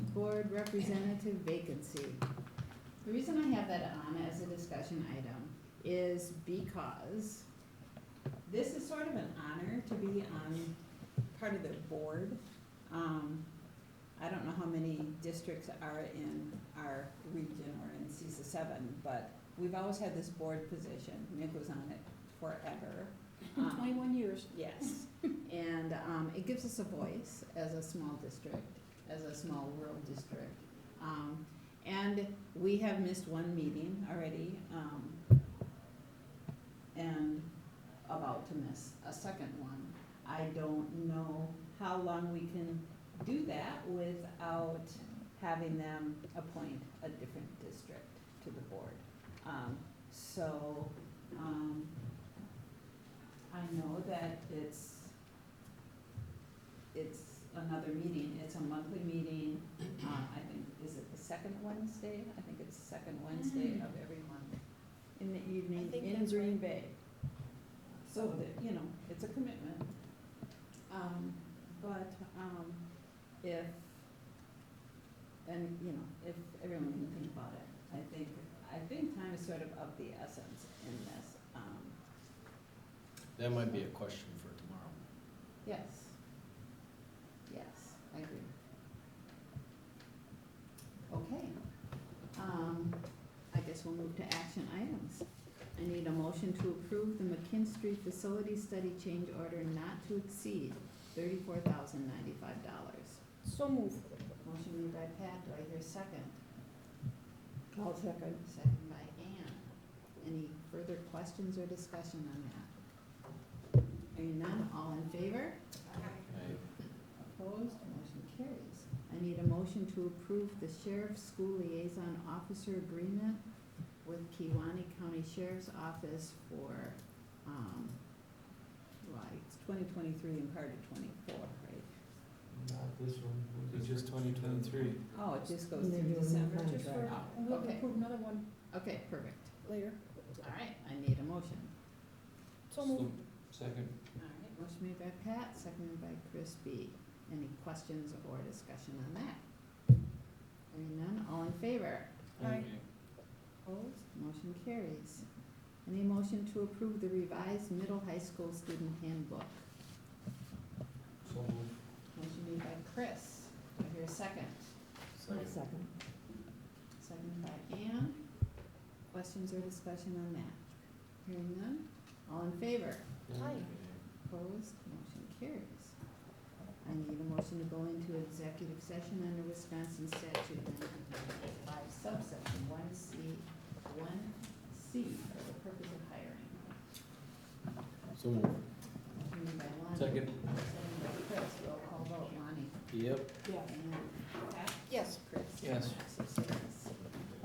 board representative vacancy. The reason I have that on as a discussion item is because this is sort of an honor to be on part of the board. Um, I don't know how many districts are in our region or in CISA seven, but we've always had this board position. Nick was on it forever. Um, Twenty-one years. Yes, and um, it gives us a voice as a small district, as a small rural district. Um, And we have missed one meeting already um, and about to miss a second one. I don't know how long we can do that without having them appoint a different district to the board. Um, So um, I know that it's, it's another meeting, it's a monthly meeting, um, I think, is it the second Wednesday? I think it's the second Wednesday of every month, Mm. in the evening, think in that's Green right. Bay. So that, you know, it's a commitment. Um, but, um, if, and, you know, if everyone can think about it, I think, I think time is sort of of the essence in this, um, That might be a question for tomorrow. Yes. Yes, I agree. Okay. Um, I guess we'll move to action items. I need a motion to approve the McKinstry Facility Study Change Order not to exceed thirty-four thousand ninety-five dollars. So moved. Motion made by Pat, do I hear a second? I'll second. Second by Ann. Any further questions or discussion on that? Hearing none, all in favor? I- Opposed, motion carries. I need a motion to approve the sheriff's school liaison officer agreement with Kiwanee County Sheriff's Office for, um, well, it's twenty twenty-three and part of twenty-four, right? Not this one. It's just twenty twenty-three. Oh, it just goes And they're through doing the December. Just for, Contract. we'll Okay. approve another one Okay, perfect. later. All right, I need a motion. So moved. Second. All right, motion made by Pat, seconded by Chris B. Any questions or discussion on that? Hearing none, all in favor? Aye. Opposed, motion carries. Any motion to approve the revised middle high school student handbook? So moved. Motion made by Chris, do I hear a second? Second. Second by Ann. Questions or discussion on that? Hearing none, all in favor? Aye. Opposed, motion carries. I need a motion to go into executive session under Wisconsin statute nineteen ninety-five subsection one C, one C for the purpose of hiring. So moved. Motion made by Lonnie. Second. Second by Chris, roll call vote, Lonnie. Yep. Yeah. Yes. Chris. Yes. Six, six.